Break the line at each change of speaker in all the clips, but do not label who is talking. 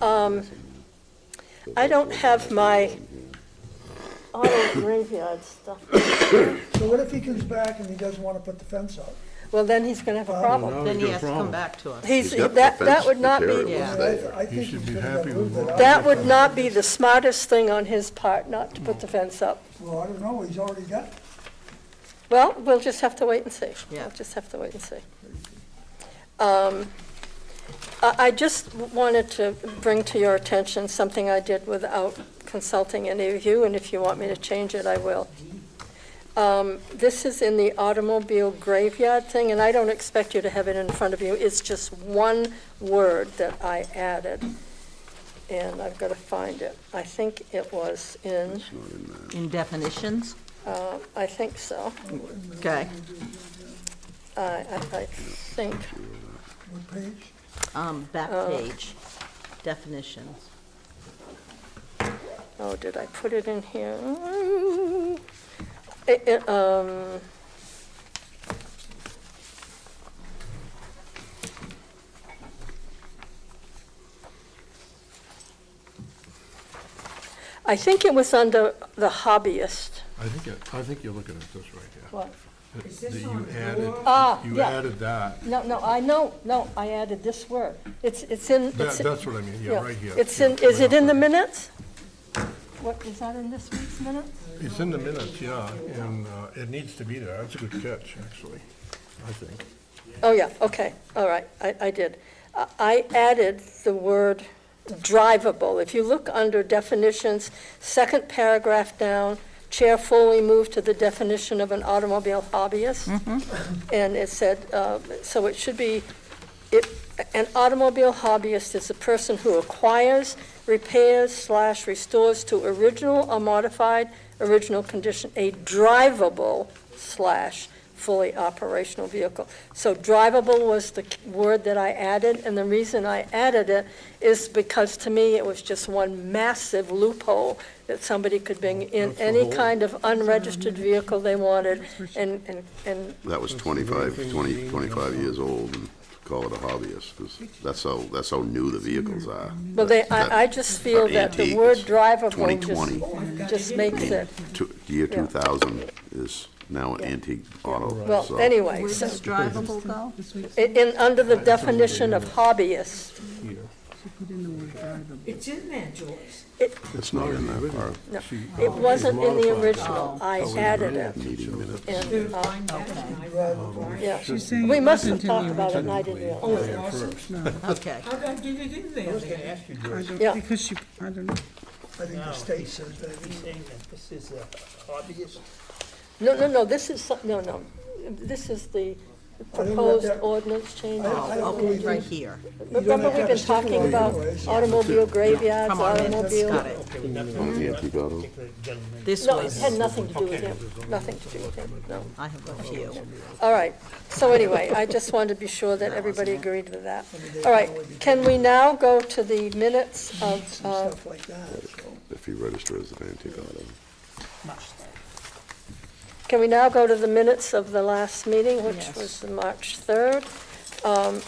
Um, I don't have my auto graveyard stuff.
So what if he comes back and he doesn't want to put the fence up?
Well, then he's gonna have a problem.
Now
Then
he's
he
got a
has to come
problem.
back to us.
He's,
He's got the
that, that
fence
would
to
not
tear it
be,
with.
Yeah.
I mean, I- I think
should
he's
be
gonna
happy
move
with
it.
what-
I-
that would not be the smartest thing on his part, not to put the fence up.
Well, I don't know, he's already got,
Well, we'll just have to wait and see.
Yeah.
We'll just have to wait and see. Um, I, I just wanted to bring to your attention something I did without consulting any of you, and if you want me to change it, I will. Um, This is in the automobile graveyard thing, and I don't expect you to have it in front of you. It's just one word that I added, and I've got to find it. I think it was in,
In definitions?
uh, I think so.
Okay.
I, I- I think,
what page?
Um, back
Uh.
page, definitions.
oh, did I put it in here? Mm. It- it, um, I think it was under the hobbyist.
I think, it- I think you're looking at this right here.
What?
That- that you added-
Ah,
You
yeah.
added that.
No, no, I know, no, I added this word. It's, it's in.
That,
it's-
that's what I mean, yeah, right here.
It's
Yeah,
in, is it in the
right
minutes? What, is that in this week's minutes?
up. It's in the minutes, yeah, and uh, it needs to be there. That's a good catch, actually, I think.
Oh, yeah, okay, all right, I, I did. I- I added the word drivable. If you look under definitions, second paragraph down, chair fully moved to the definition of an automobile hobbyist. And it said, uh, so it should be, it, an automobile hobbyist is a person who acquires, repairs slash restores to original or modified original condition a drivable slash fully operational vehicle. So drivable was the k- word that I added, and the reason I added it is because to me, it was just one massive loophole that somebody could
Oh,
bring in
That's the
any
whole-
kind of unregistered vehicle they wanted and, and, and
That was
That's the very
25,
thing
20,
Dean
25
also-
years old, and call it a hobbyist, 'cause that's how, that's how new the vehicles are.
Well, they,
That-
I, I just feel that the
antique,
word
it's
drivable
2020,
just, just makes it,
Two- year
Yeah.
2000 is now an antique auto,
well,
so.
anyway,
Where
so,
does drivable go?
in, in- under the definition of hobbyist,
Here.
It's in there, George.
It's not in that part.
no,
She-
it wasn't in the
modified
original, I added it,
Meeting minutes.
and, uh, yeah.
She's
saying
We
it wasn't
mustn't
in
talk
the
about it, and I didn't
Oh,
realize.
yeah, first.
Okay.
How did I get it in there? then?
I
Yeah.
don't, because she, I don't know.
I think the state says that.
This is uh, a hobbyist.
No, no, no, this is, some- no, no, this is the
don't know
proposed
that-
ordinance change.
I don't
Oh, Okay,
really
right
think-
here,
Remember, we've been talking about automobile graveyards,
from our minutes,
automobile.
got it.
Okay, well, that's
On the antique auto.
particular gentleman.
This
No, it had
was,
nothing to do with him, nothing to do with him, no.
I have a few.
All right, so anyway, I just wanted to be sure that everybody agreed with that. All right, can we now go to the minutes of,
Some
uh,
stuff like that, so.
If you register as an antique auto.
can we now go to the minutes of the last meeting, which
Yes.
was the March 3rd? Um,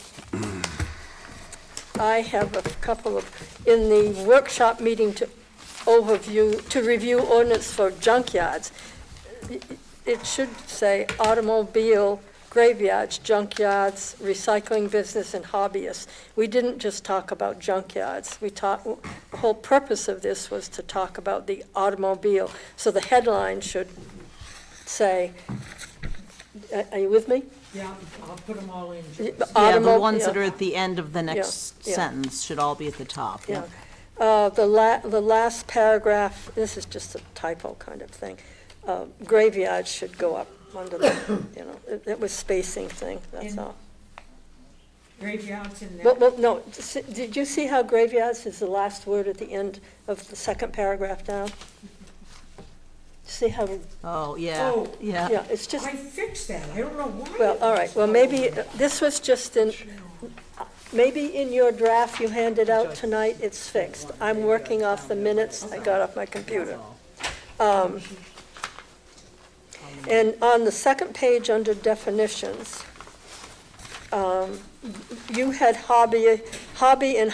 I have a couple of, in the workshop meeting to overview, to review ordinance for junkyards, it should say automobile graveyards, junkyards, recycling business, and hobbyists. We didn't just talk about junkyards. We talked, the whole purpose of this was to talk about the automobile. So the headline should say, are- are you with me?
Yeah, I'll put them all in. George.
Yeah, the
Automo-
ones that
yeah.
are at the end of the next
yeah.
sentence should all be at the top, yeah.
Yeah. Uh, The la, the last paragraph, this is just a typo kind of thing. Uh, Graveyard should go up under the, you know, it- it was spacing thing, that's
In-
all.
Graveyards in there.
Well, well, no, s- did you see how graveyards is the last word at the end of the second paragraph down? See how,
Oh, yeah,
Oh,
yeah.
yeah, it's just,
I fixed that. I don't know why.
well,
it
all
was
right, well,
so-
maybe, uh, this was just in, maybe in your draft you handed out tonight, it's fixed. I'm working off the minutes I got off my computer. Um, And on the second page, under definitions, um, you had hobby, hobby and